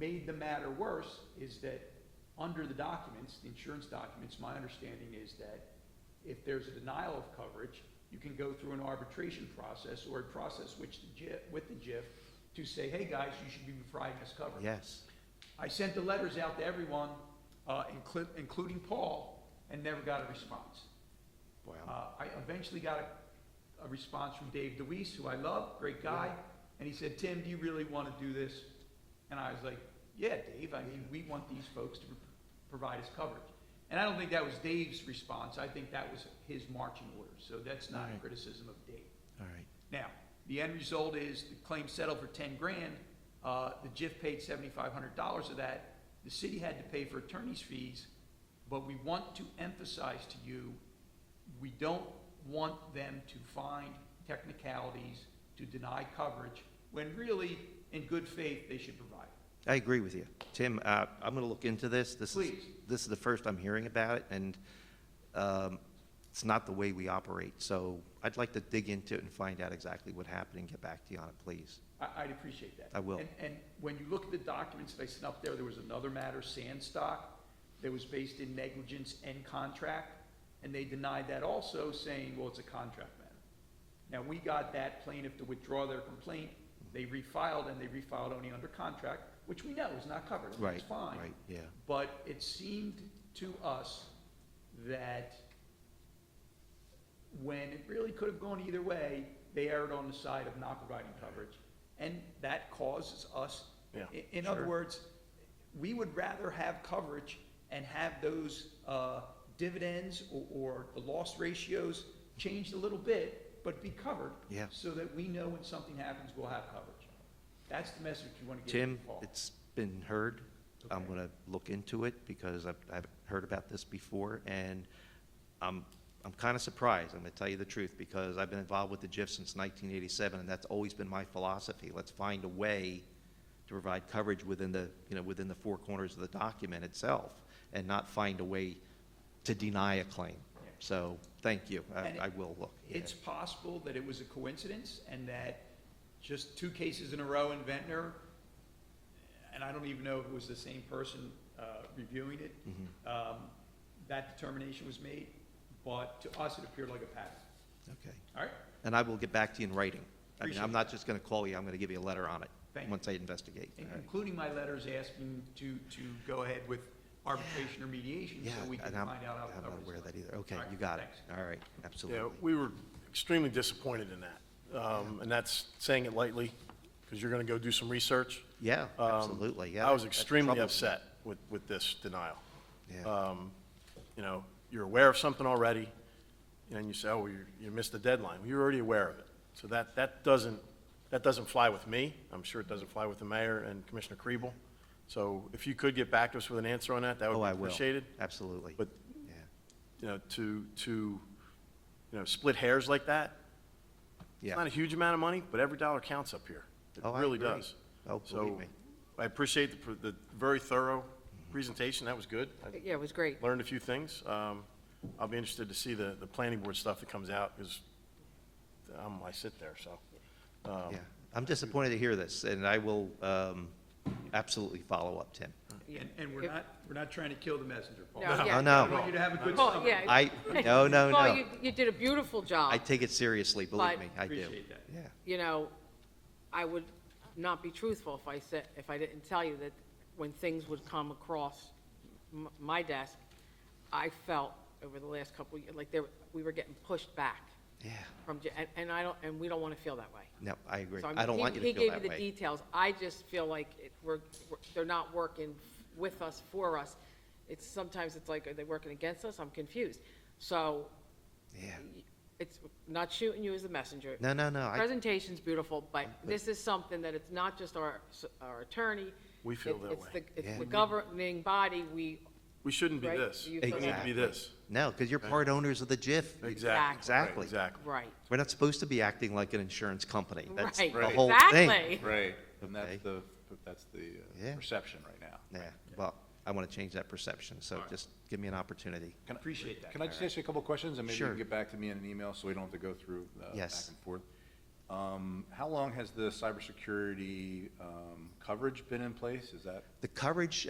made the matter worse is that under the documents, the insurance documents, my understanding is that if there's a denial of coverage, you can go through an arbitration process or a process which the JIF, with the JIF to say, hey, guys, you should be providing us coverage. Yes. I sent the letters out to everyone, uh, inclu- including Paul, and never got a response. Uh, Wow. I eventually got a, a response from Dave DeWeese, who I love, great guy, and he said, Tim, do you really want to do this? And I was like, yeah, Dave, I mean, we want these folks to pr- provide us coverage. And I don't think that was Dave's response, I think that was his marching orders, so that's not a Right. criticism of Dave. All right. Now, the end result is the claim settled for ten grand, uh, the JIF paid seventy-five hundred dollars of that. The city had to pay for attorney's fees, but we want to emphasize to you, we don't want them to find technicalities to deny coverage, when really, in good faith, they should provide it. I agree with you. Tim, uh, I'm going to look into this. This is, Please. this is the first I'm hearing about it, and um, it's not the way we operate. So I'd like to dig into it and find out exactly what happened and get back to you on it, please. I, I'd appreciate that. I will. And, and when you look at the documents that I sent up there, there was another matter, Sandstock, that was based in negligence and contract, and they denied that also, saying, well, it's a contract matter. Now, we got that plaintiff to withdraw their complaint, they refiled, and they refiled only under contract, which we know is not covered, and Right, it's fine. right, yeah. But it seemed to us that when it really could have gone either way, they erred on the side of not providing coverage. And that causes us, Yeah. i- in other Sure. words, we would rather have coverage and have those uh, dividends or- or the loss ratios changed a little bit, but be covered. Yeah. So that we know when something happens, we'll have coverage. That's the message you want to give Tim, to Paul. it's been heard. I'm Okay. going to look into it because I've, I've heard about this before, and I'm, I'm kind of surprised, I'm going to tell you the truth, because I've been involved with the GIF since 1987, and that's always been my philosophy. Let's find a way to provide coverage within the, you know, within the four corners of the document itself, and not find a way to deny a claim. Yeah. So, thank you. I, And I will look. yeah. It's possible that it was a coincidence and that just two cases in a row in Ventnor, and I don't even know if it was the same person uh, reviewing it, Mhm. um, that determination was made, but to us, it appeared like a pattern. Okay. All right? And I will get back to you in writing. I mean, Appreciate I'm it. not just going to call you, I'm going to give you a letter on it. Thank you. Once I investigate. In- All right. Including my letters asking to, to go ahead with arbitration or mediation Yeah, so we can and I'm, find out how the I'm not coverage aware of is. that either. Okay, All right, you got it. thanks. All right, Yeah, absolutely. we were extremely disappointed in that. Um, And that's saying it lightly, because you're going to go do some research. Yeah, Um, absolutely, yeah. I was that- that extremely troubles me. upset Um, with, with this denial. Yeah, You know, you're aware of something already, and you say, oh, you, you missed the deadline. You're already aware of it. So that, that doesn't, that doesn't fly with me. I'm sure it doesn't fly with the mayor and Commissioner Kriebel. So if you could get back to us with an answer on that, that oh, would I be will, appreciated. absolutely. But Yeah, you know, to, to, you know, split hairs like that. It's Yeah. not a huge amount of money, but every dollar counts up here. It Oh, I really agree. does. Oh, So, believe me. I appreciate the, pr- the very thorough presentation. That was good. I Yeah, it was great. learned a few things. Um, I'll be interested to see the, the planning board stuff that comes out, because I'm, I sit there, so. um, yeah. I'm disappointed to hear this, and I will um, absolutely follow up, Tim. Yeah. And, and we're It- not, we're not trying to kill the messenger, Paul. No, Oh, yeah. I want no, you to have a good Paul, summer. yeah. I, no, no, Paul, no. you, you did a beautiful job. I take it seriously, believe But- me, I do. Appreciate that. Yeah, You know, I would not be truthful if I said, if I didn't tell you that when things would come across m- my desk, I felt over the last couple, of years like there, we were getting pushed back yeah, from, J- and, and I don't, and we don't want to feel that way. no, I agree. So I'm- I don't he- want you to feel that He gave you the way. details. I just feel like it, we're, we're- they're not working with us, for us. It's, sometimes it's like, are they working against us? I'm confused. So Yeah, it's not shooting you as a messenger. no, no, no, I, Presentation's beautiful, but this is something that it's not just our, our attorney. We feel It- that it's way. the- It's Yeah. the governing body, we, We shouldn't be Right, this. We you feel need that to Exactly. be this. no, because you're part owners of the JIF. You- Exactly. Exactly. Exactly. right, We're not supposed to be acting like an insurance company. That's right, the whole thing. exactly. Right, and Okay. that's the, that's the Yeah. uh, perception right now. Yeah, well, I want to change that perception, so just give me an opportunity. Can I- Appreciate that. Can I just ask you a couple of questions, and maybe you Sure. can get back to me in an email, so we don't have to go through uh, back Yes. and forth? Um, How long has the cybersecurity um, coverage been in place? Is that The coverage